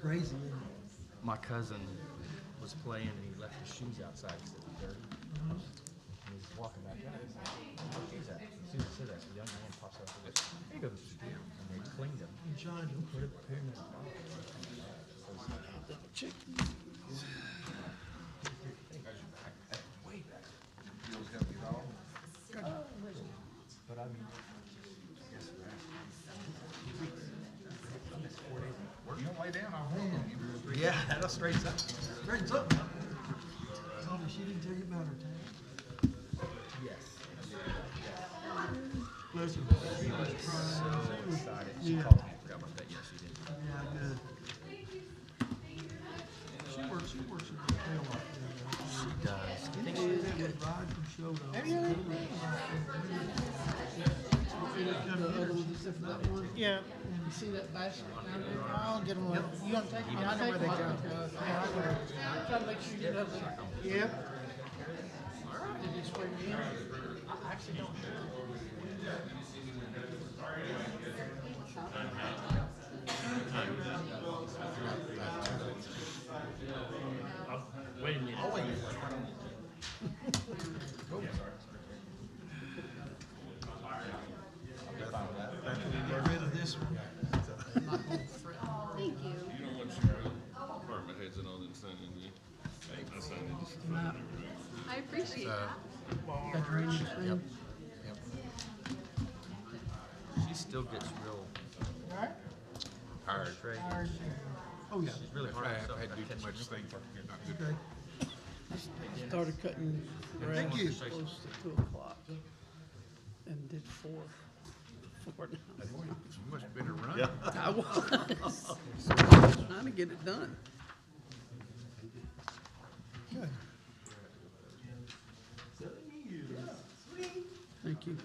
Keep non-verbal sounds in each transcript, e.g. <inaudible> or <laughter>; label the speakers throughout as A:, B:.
A: crazy, isn't it?
B: My cousin was playing and he left his shoes outside because it was dirty. And he was walking back out. He's like, "Where's your shoes at?" As soon as he said that, the young man pops up and goes, "Here you go, Mr. Deal." And they cleaned him.
A: And John don't put up a pair of
B: But I mean,
C: You don't lay down, I'll hold on you.
B: yeah, that'll straighten up.
A: Straightens up. Tommy, she didn't tell you about her time.
B: Yes.
A: Bless her. She was crying. She was-
B: Excited. She
A: Yeah.
B: called me. Forgot about that. Yes, she did.
A: Yeah, good. She works, she works at the tail off there.
B: She does.
A: Didn't she have a ride from Shodo?
D: Yeah, and see that basket down there? I'll get them. You gonna take them? I'll take them. Yeah, I will. Try to make sure you get up there. Yep. Did they swear you in? I actually don't.
B: Wait a minute. Oh, <laughs> wait.
A: Get rid of this one.
E: Thank you.
F: You know what your department heads and all that sign in, yeah? I signed it just for fun.
E: I appreciate that.
A: Got your annual thing?
B: She still gets real
D: Right?
F: Hard.
B: straight.
D: Or-
A: Oh, yeah,
B: She's really hard on
C: I've
B: herself.
C: had to
B: I
C: do
B: catch
C: too
B: her
C: much things.
A: okay.
D: Started cutting grass
B: you.
D: close to two o'clock and did four, four now.
C: Much better run.
D: I was trying to get it done. Thank you.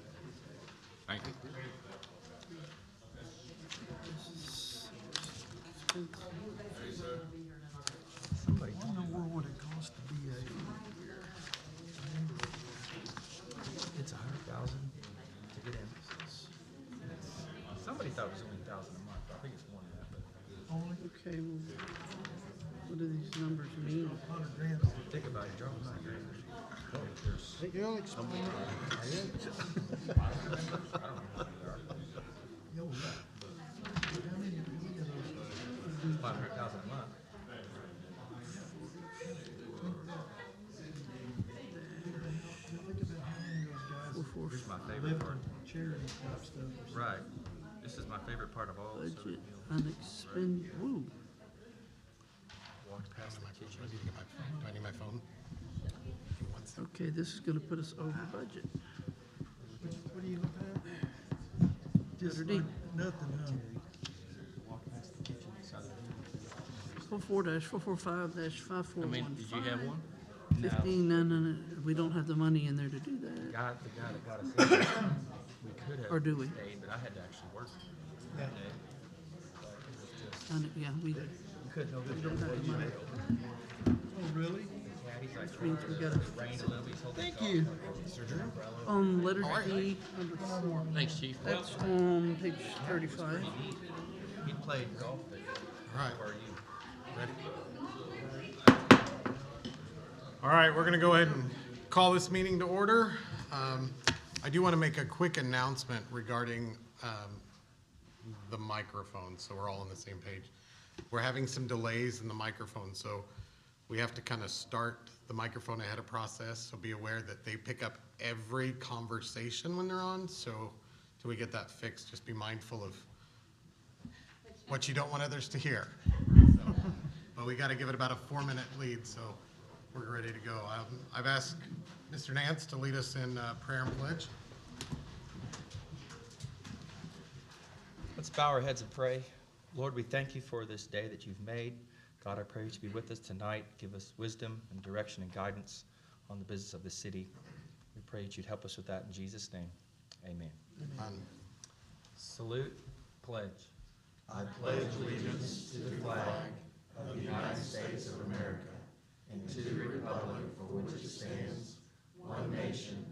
C: Thank you.
A: I wonder what would it cost to be a,
B: It's a hundred thousand to get in. Somebody thought it was only a thousand a month. I think it's more than that, but
A: only
D: Okay, well, what do these numbers mean?
A: a hundred grand?
B: think about it. Drop my grand.
D: You'll explain
A: Yo, yeah. How many, how many of those?
B: Five hundred thousand a month.
A: Now think about how many of those guys
B: Here's my
A: live
B: favorite part.
A: for charity type stuff.
B: Right. This is my favorite part of all. So that
D: budget
B: you
D: unexpended, woo,
B: walked past the kitchen.
C: Do I need my phone?
D: okay, this is gonna put us over budget.
A: What what are you looking at? Just
D: Letter D.
A: like nothing, huh?
D: Four-four dash, four-four-five dash,
B: I mean,
D: five-four-one.
B: did you have one?
D: Fifteen, no, no, no, we don't have the money in there to do that.
B: Guy, the guy that got us in. We could have.
D: Or do we?
B: Stayed, but I had to actually work that day. Like, it was just-
D: And, yeah, we, that
B: We couldn't open the
D: have the money.
B: door.
A: Oh, really?
B: Patty's like,
D: means we gotta,
B: rain a little. He's holding
A: Thank you.
D: on Um, letter D, number four,
B: Thanks, chief.
D: that's on page thirty-five.
B: He played golf there.
C: Right.
B: Where are you?
G: All right, we're going to go ahead and call this meeting to order. Um, I do want to make a quick announcement regarding um, the microphone, so we're all on the same page. We're having some delays in the microphone, so we have to kind of start the microphone ahead of process, so be aware that they pick up every conversation when they're on, so till we get that fixed, just be mindful of what you don't want others to hear. But we gotta give it about a four-minute lead, so we're ready to go. Um, I've asked Mr. Nance to lead us in uh, prayer and pledge.
B: Let's bow our heads and pray. Lord, we thank you for this day that you've made. God, I pray you to be with us tonight. Give us wisdom and direction and guidance on the business of the city. We pray that you'd help us with that in Jesus' name. Amen.
G: Um,
B: Salute, pledge. I pledge allegiance to the flag of the United States of America and to the republic for which it stands,